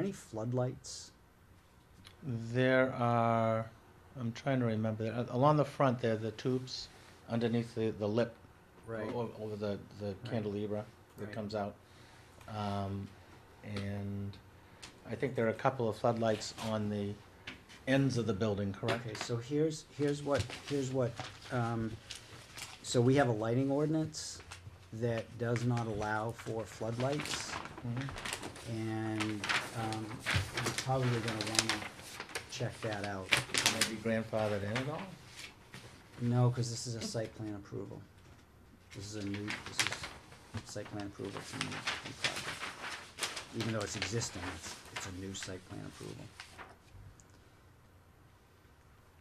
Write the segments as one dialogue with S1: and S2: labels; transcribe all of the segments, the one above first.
S1: Any floodlights?
S2: There are, I'm trying to remember, uh, along the front there, the tubes underneath the, the lip. o- o- Over the, the cantilever that
S1: Right.
S2: comes out. Um, and I think there are a couple of floodlights on the ends of the building, correct?
S1: Okay, so here's, here's what, here's what, um, so we have a lighting ordinance that does not allow for floodlights.
S2: Mhm.
S1: And, um, you're probably gonna wanna check that out.
S2: Maybe grandfathered in at all?
S1: No, cause this is a site plan approval. This is a new, this is site plan approval, it's a new, new project. Even though it's existing, it's, it's a new site plan approval.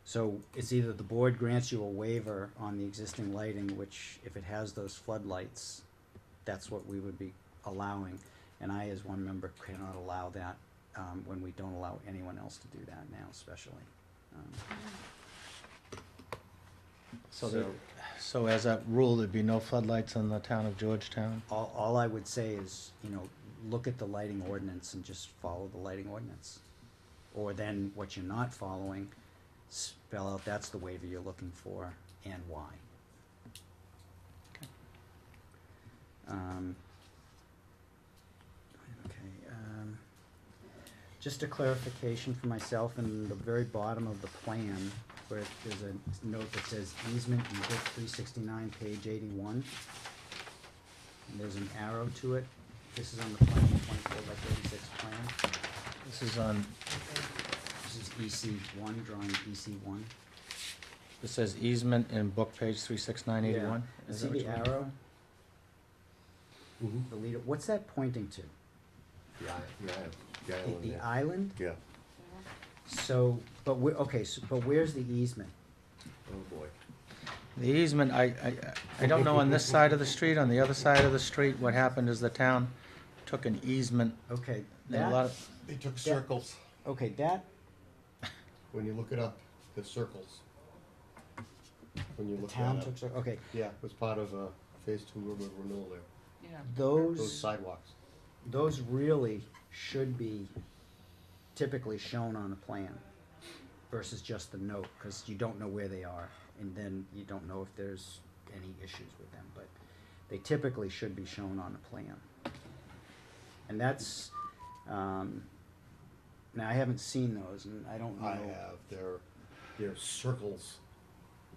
S1: So it's either the board grants you a waiver on the existing lighting, which if it has those floodlights, that's what we would be allowing. And I, as one member, cannot allow that, um, when we don't allow anyone else to do that now especially. Um,
S2: So there, so as a rule, there'd be no floodlights in the town of Georgetown?
S1: All, all I would say is, you know, look at the lighting ordinance and just follow the lighting ordinance. Or then what you're not following, spell out that's the waiver you're looking for and why. Um, okay, um, just a clarification for myself in the very bottom of the plan where there's a note that says easement in book three sixty-nine, page eighty-one and there's an arrow to it. This is on the plan, twenty-four by thirty-six plan.
S2: This is on,
S1: This is EC one, drawing EC one.
S2: it says easement in book page three six nine eighty-one?
S1: See the arrow? The leader, what's that pointing to?
S3: The i- the island, the
S1: The-
S3: island,
S1: The
S3: yeah.
S1: island?
S3: Yeah,
S1: So, but where, okay, so, but where's the easement?
S3: oh boy.
S2: The easement, I, I, I don't know on this side of the street, on the other side of the street, what happened is the town took an easement.
S1: Okay,
S2: and a lot
S1: that,
S2: of-
S3: They took circles.
S1: okay, that,
S3: When you look it up, the circles. When you
S1: the
S3: look
S1: town
S3: that
S1: took,
S3: up.
S1: so- okay,
S3: Yeah, it was part of, uh, phase two urban renewal there, those
S1: those,
S3: sidewalks.
S1: those really should be typically shown on a plan versus just the note, because you don't know where they are, and then you don't know if there's any issues with them, but they typically should be shown on a plan. And that's, um, now I haven't seen those, and I don't know.
S3: I have, they're, they're circles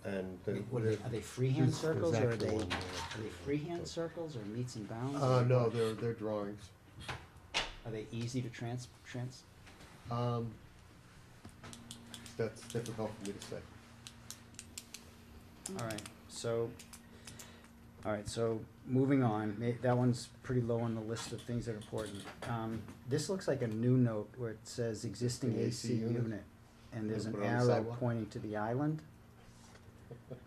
S3: and.
S1: I
S3: they're-
S1: mean, What are they, are they freehand
S3: There's- there's
S1: circles, or are
S3: actual
S1: they,
S3: one there.
S1: are they freehand circles, or meets and bounds?
S3: Uh, no, they're, they're drawings.
S1: Are they easy to trans, trans,
S3: Um, that's difficult for me to say.
S1: All right, so, all right, so moving on, ma- that one's pretty low on the list of things that are important. Um, this looks like a new note where it says existing
S3: Existing
S1: AC
S3: AC unit.
S1: unit, and there's
S3: Gonna
S1: an
S3: put it on the
S1: arrow
S3: sidewalk?
S1: pointing to the island.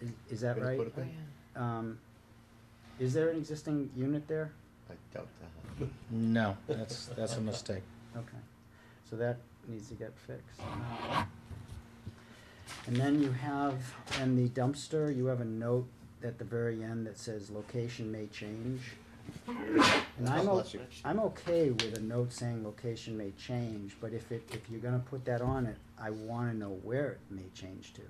S1: Is, is that
S3: Gonna
S1: right?
S3: put
S4: Oh,
S3: it there?
S1: Um, is there an existing unit there?
S3: I doubt that.
S2: No, that's, that's a mistake.
S1: Okay, so that needs to get fixed. And then you have, in the dumpster, you have a note at the very end that says location may change. And I'm, o-
S3: Bless you.
S1: I'm okay with a note saying location may change, but if it, if you're gonna put that on it, I wanna know where it may change to.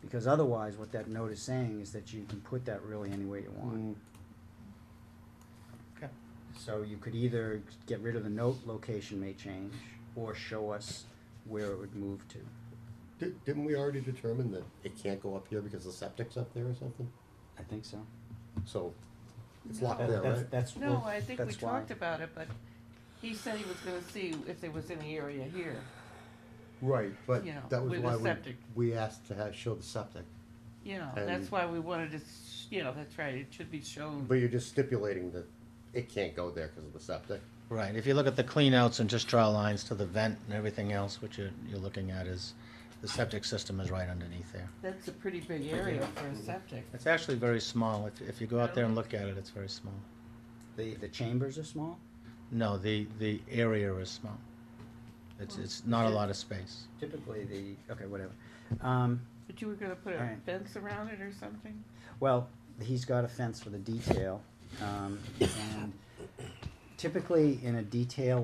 S1: Because otherwise, what that note is saying is that you can put that really anywhere you want.
S3: Mm,
S2: Okay.
S1: So you could either get rid of the note, location may change, or show us where it would move to.
S3: di- Didn't we already determine that it can't go up here because the septic's up there or something?
S1: I think so.
S3: So it's locked
S1: That-
S3: there,
S1: that's-
S3: right?
S1: That's,
S4: No,
S1: well,
S4: I think we
S1: that's why.
S4: talked about it, but he said he was gonna see if there was any area here.
S3: Right, but
S4: you know,
S3: that was
S4: with
S3: why
S4: the
S3: we,
S4: septic. Mm-hmm.
S3: we asked to have, show the septic.
S4: You know,
S3: And-
S4: that's why we wanted to, s- you know, that's right, it should be shown.
S3: But you're just stipulating that it can't go there because of the septic.
S2: Right, if you look at the cleanouts and just draw lines to the vent and everything else, what you're, you're looking at is, the septic system is right underneath there.
S4: That's a pretty big area for a septic.
S2: It's actually very small, if, if you go out there and look at it, it's very small.
S1: The, the chambers are small.
S2: No, the, the area is small. It's, it's not a lot of space.
S1: Typically the, okay, whatever. Um,
S4: But you were gonna put a
S1: Alright.
S4: fence around it or something?
S1: well, he's got a fence for the detail, um, and typically in a detail